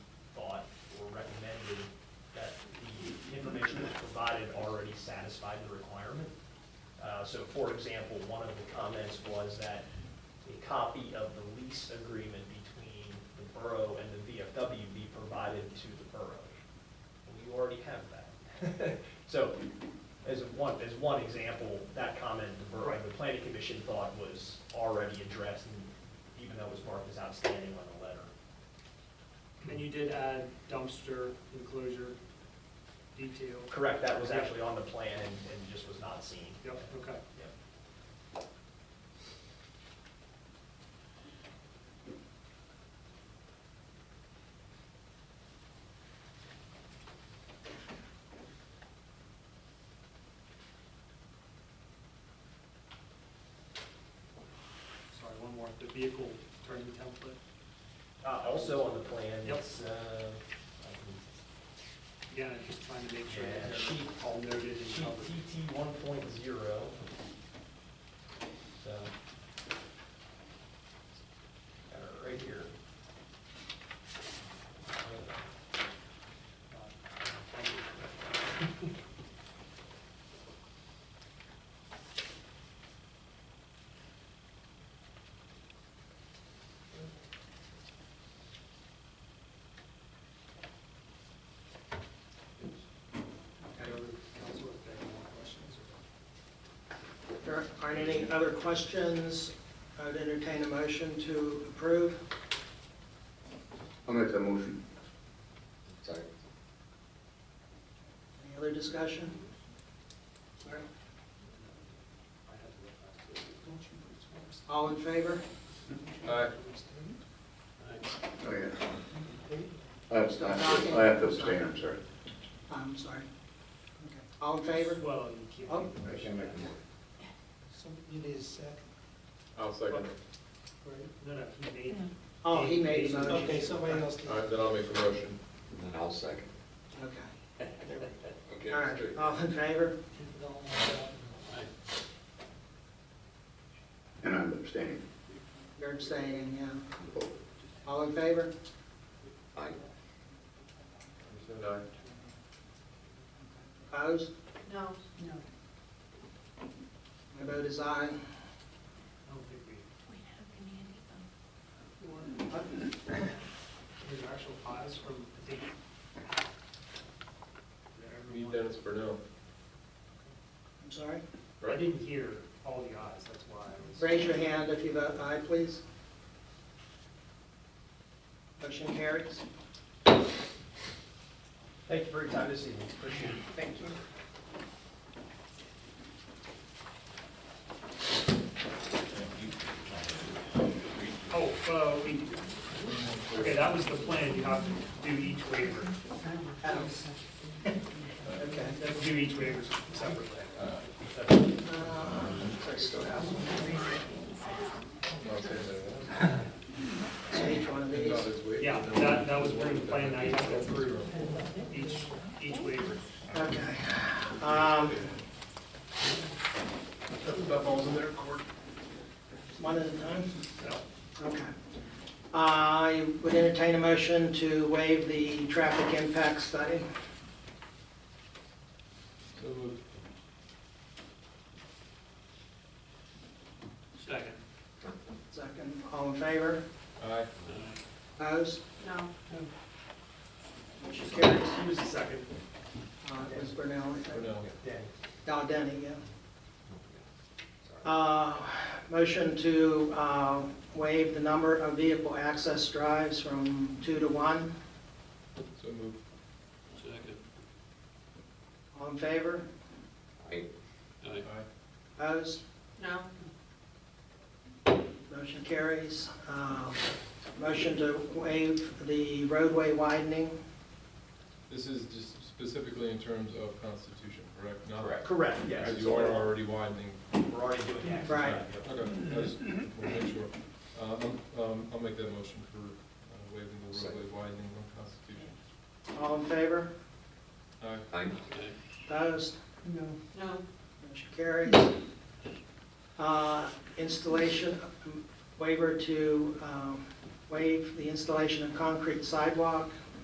satisfied the requirement. Uh, So for example, one of the comments was that a copy of the lease agreement between the borough and the VFW be provided to the borough. We already have that. So as one, as one example, that comment, the borough, the planning commission thought was already addressed, and even though it was marked as outstanding on the letter. And you did add dumpster enclosure detail. Correct, that was actually on the plan and, and just was not seen. Yep, okay. Yep. Sorry, one more, the vehicle turning template. Uh, also on the plan, Yep. it's, uh, I Again, I'm just trying to make can- sure that yeah, they're sheet, all noted and sheet covered. TT one point zero. So. Got it right here. Head over to council if they have more questions. There aren't any other questions. I'd entertain a motion to approve. I'll make that motion. Sorry. Any other discussion? All right. I had to look back to it. Don't you know it's worse? All in favor? Aye. Thanks. Oh, yeah. I abstain, I have to abstain, I'm sorry. I'm sorry. Okay. All in favor? Well, you keep. Oh. I can't make a motion. You need a second. I'll second it. No, no, he made. Oh, he made the motion. Okay, somebody else All right, then I'll make a motion. And then I'll second. Okay. Okay, All right, straight. all in favor? And I'm abstaining. You're abstaining, yeah. All in favor? Aye. Anderson, aye. Opposed? No. My vote is aye. I don't think we, Wait, how can Andy vote? there's actual files from, I think. Me, Dennis Burnell. I'm sorry. I Right? didn't hear all the ayes, that's why I was. Raise your hand if you vote aye, please. Motion carries. Thank you for your time this evening, appreciate it. Thank you. Oh, uh, we, okay, that was the plan, you have to do each waiver, Okay. You have to do each waiver separately. So I still have I'll second that. So each one of No, these. it's way- Yeah, that, that was where the plan, now you have to approve each, each waiver. Okay. Um, That falls in their court. One at a time? No. Okay. I would entertain a motion to waive the traffic impact study. So moved. Second. Second, all in favor? Aye. Opposed? No. Motion carries. Who was the second? Uh, it was Brunel, I think. Burnell. Al Denny, yeah. Uh, Motion to uh, waive the number of vehicle access drives from two to one. So moved. All in favor? Aye. Aye. Opposed? No. Motion carries. Uh, Motion to waive the roadway widening. This is just specifically in terms of constitution, correct? Not- Correct. Correct, yes. Because you are already widening. We're already doing that. Right. Okay, Mm-hmm. I just want to make sure. Um, um, I'll make that motion for uh, waiving the roadway widening on constitution. All in favor? Aye. Aye. Opposed? No. Motion carries. Uh, Installation, um, waiver to um, waive the installation of concrete sidewalk.